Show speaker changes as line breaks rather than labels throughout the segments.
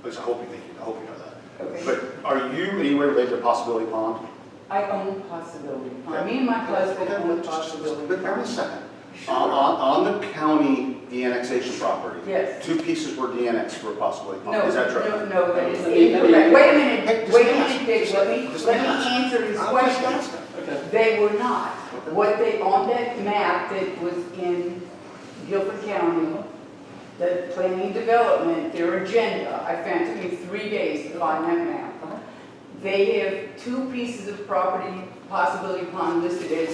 At least I hope you think, I hope you know that.
Okay.
But are you anywhere related to Possibility Pond?
I own possibility. Me and my husband
Okay,
own
just- just-
possibility.
But wait a second. On, on, on the county, the annexation property?
Yes.
Two pieces were de-annexed were Possibility
No,
Pond, is that true?
no, no, that is
Let me-
incorrect. Wait a minute,
Just
wait a
ask.
minute, Dave, let me,
Just
let
ask.
me answer his
I'm just
question.
asking. Okay.
They were not. What they, on that map that was in Guilford County, the planning development, their agenda, I found, it took me three days to find that map. They have two pieces of property, possibility pond listed as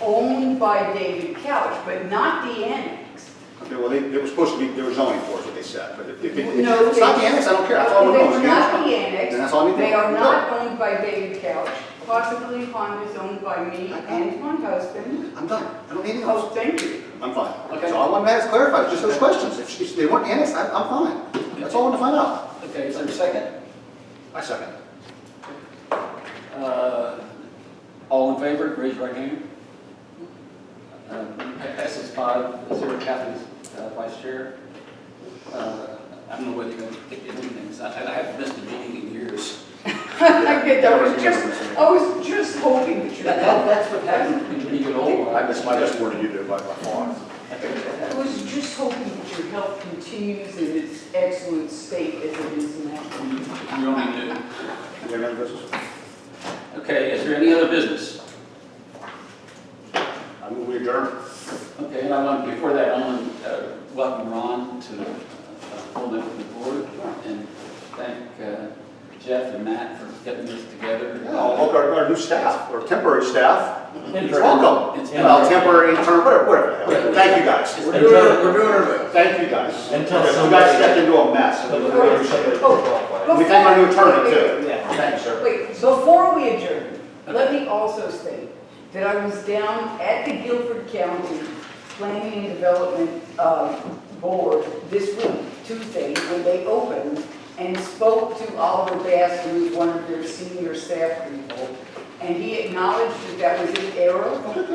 owned by David Couch, but not the annex.
Okay, well, they, they were supposed to be, there was zoning for it, what they said, but if, if, if
No,
it's not
they-
the annex, I don't care, that's all we're
They
doing.
were
is
not the
the
annex.
Then that's all I need to know.
They are not owned by David Couch. Possibly pond is owned by me and my husband.
I'm done, I don't need any of
Oh,
those,
thank you.
I'm fine.
Okay.
So all I want to have is clarified, just those questions, if she- if they weren't annexed, I, I'm fine, that's all I want to find out.
Okay, is there a second?
I second.
Uh, All in favor, raise your right hand. Um, Passes five, zero, Kathy's uh, vice chair. Uh, I don't know whether you're going to pick anything, I I haven't missed a meeting in years.
I get that, I was just, I was just hoping that you
That- that- That's what happens when you get older.
I missed my best word you do by by far.
I was just hoping that your health continues in its excellent state as it is now.
You you only knew.
You have any other business?
Okay, is there any other business?
I move we adjourn.
Okay, and I want, before that, I want to welcome Ron to uh, hold up the board and thank uh, Jeff and Matt for getting this together.
Yeah, I'll welcome our, our new staff, or temporary staff,
It's
welcome.
It's
Well,
temporary.
temporary, interim, whatever, whatever. Thank you guys. We're doing, we're doing our best. Thank you guys.
Until
Okay, You
somebody-
guys stepped into a mess.
Oh,
We thank our new attorney
before-
too. Thank you, sir.
Wait, before we adjourn, let me also state that I was down at the Guilford County Planning and Development uh, Board this week, Tuesday, when they opened, and spoke to Oliver Bass, who was one of their senior staff people, and he acknowledged that that was an error,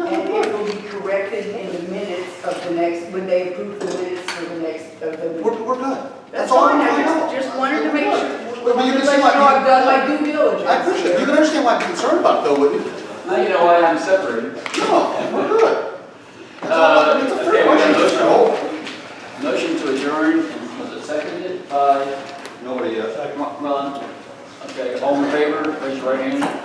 and it will be corrected in the minutes of the next, when they approve the minutes for the next, of the
We're, we're good.
that's
all
all I
wanna
just,
know.
just wanted to make
We're
sure,
good. Well,
wanted
you
to
can see
let
why
you know I've
you-
done my due diligence.
I appreciate it. You can understand why I'm concerned about it though, wouldn't you?
Now you know why I'm separated.
No, we're good. That's all I- It's a
Uh, okay,
fair question,
we got
Mr.
a
Holt.
Motion to adjourn, and was it seconded by
Nobody uh, yet.
Ron? Okay, all in favor, raise your right hand. oh